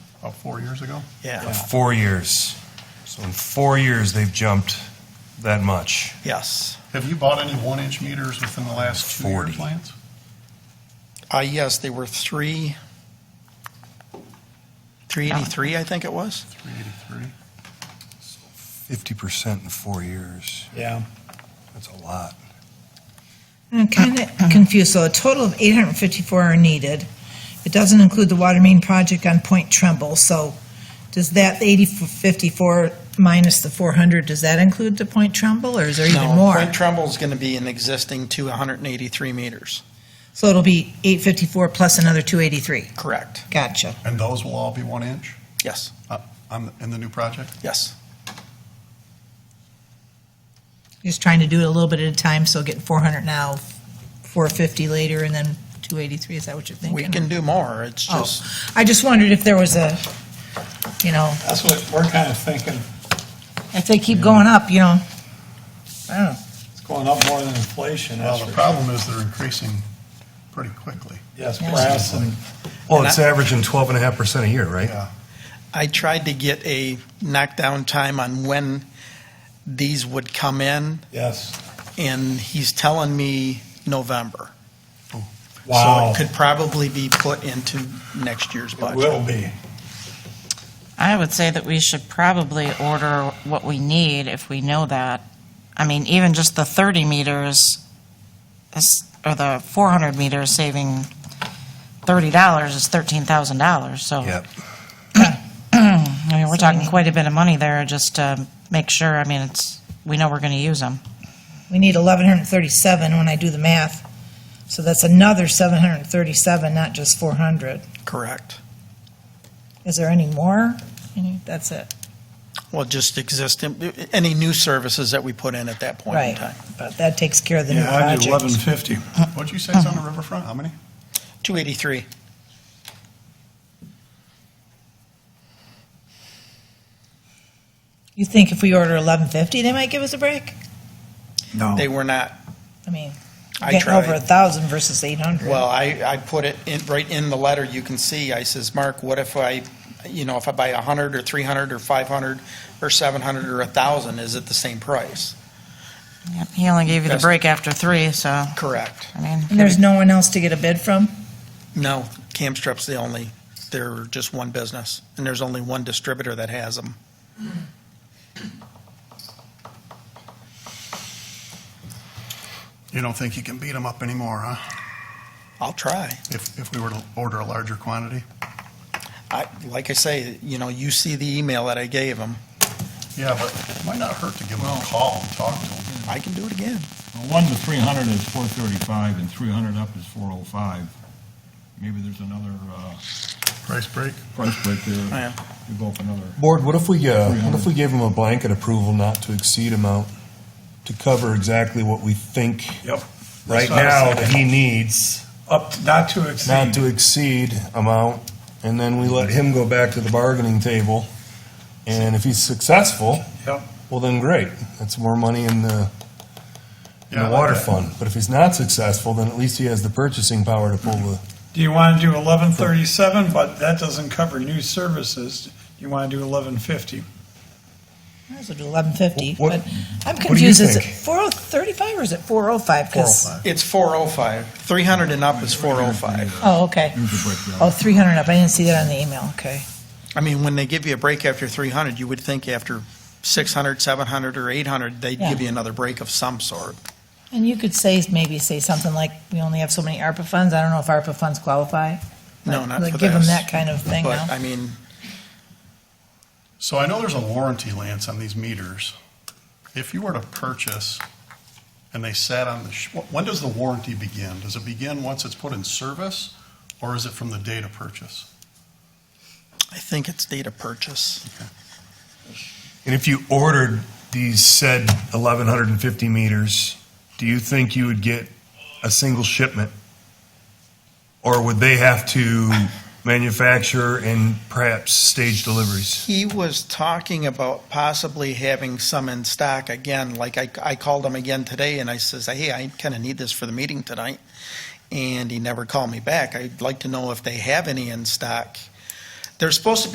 about four years ago. Yeah, Four years. So in four years, they've jumped that much. yes. Have you bought any one-inch meters within the last two-year 40. plans? Uh, yes, they were three, 383, I think it was. 383. 50% in four years. Yeah. That's a lot. I'm kind Uh-huh. of confused, so a total of 854 are needed. It doesn't include the water main project on Point Trumbull, so does that 854 minus the 400, does that include the Point Trumbull, or is there even No, more? Point Trumbull's going to be an existing 283 meters. So it'll be 854 plus another 283. Correct. Gotcha. And those will all be one inch Yes, uh, on, the- in the new project? yes. Just trying to do it a little bit at a time, so getting 400 now, 450 later, and then 283, is that what you're We thinking? can do more. It's Oh. just, I just wondered if there was a, you know, That's what we're kind of thinking. if they keep going up, you know, I don't know. It's going up more than inflation. that's Well, the for problem is they're increasing pretty quickly. sure. Yes, Yeah. grass and, Well, it's averaging 12.5% a year, right? Yeah. I tried to get a knockdown time on when these would come in, yes. and he's telling me November. Wow. So it could probably be put into next year's It budget. will be. I would say that we should probably order what we need if we know that. I mean, even just the 30 meters, is- or the 400 meters saving $30 is $13,000, so. Yep. I mean, we're talking quite a bit of money there, just to make sure, I mean, it's, we know we're going to use them. We need 1,137 when I do the math, so that's another 737, not just 400. Correct. Is there any more? Any- That's it, Well, just existing, any new services that we put in at that point in right. time. But that takes care of the new Yeah, I project. did eleven fifty. What'd you say is on the riverfront? How many? 283. You think if we order 1,150, they might give us a break? No. They were not, I mean, I getting over tried. 1,000 versus 800. Well, I, I put it in, right in the letter, you can see, I says, Mark, what if I, you know, if I buy 100 or 300 or 500 or 700 or 1,000, is it the same price? Yep, He only gave you the That's- break after three, so, Correct. I mean. And there's no one else to get a bid from? No, Camstrup's the only, they're just one business, and there's only one distributor that has them. You don't think you can beat them up anymore, huh? I'll try. If, if we were to order a larger quantity? I, like I say, you know, you see the email that I gave them. Yeah, but it might not hurt to give them a call and talk to them. I can do it again. Well, One to 300 is 435, and 300 up is 405. Maybe there's another uh, Price break? price break yeah. there. You go up another. Board, what if we, uh, Mhm. what 300. if we gave them a blanket approval not to exceed amount to cover exactly what we think Yep. right That's what I was now thinking. that he needs, Up, not to not exceed. to exceed amount, and then we let him go back to the bargaining table. And if he's successful, Yep. well then great, that's more money in the, in Yeah, I the like water that. fund. But if he's not successful, then at least he has the purchasing power to pull the Do you want to do eleven thirty-seven, but that doesn't cover new services? You want to do eleven fifty? Might as well do 1,150, What- but I'm do you confused, is it think? 435 or is it 405? 405. It's 405. 300 and up is 405. Oh, okay. Here's the breakdown. Oh, 300 up, I didn't see that on the email, okay. I mean, when they give you a break after 300, you would think after 600, 700, or 800, they'd Yeah. give you another break of some sort. And you could say, maybe say something like, we only have so many ARPA funds, I don't know if ARPA funds qualify. No, Like- not like for Give them this. that kind of thing But, now. I mean, So I know there's a warranty, Lance, on these meters. If you were to purchase and they sat on the, sh- wh- when does the warranty begin? Does it begin once it's put in service or is it from the date of purchase? I think it's data purchase. And if you ordered these said 1,150 meters, do you think you would get a single shipment? Or would they have to manufacture and perhaps stage deliveries? He was talking about possibly having some in stock again, like I, I called him again today and I says, hey, I kind of need this for the meeting tonight. And he never called me back. I'd like to know if they have any in stock. They're supposed to be.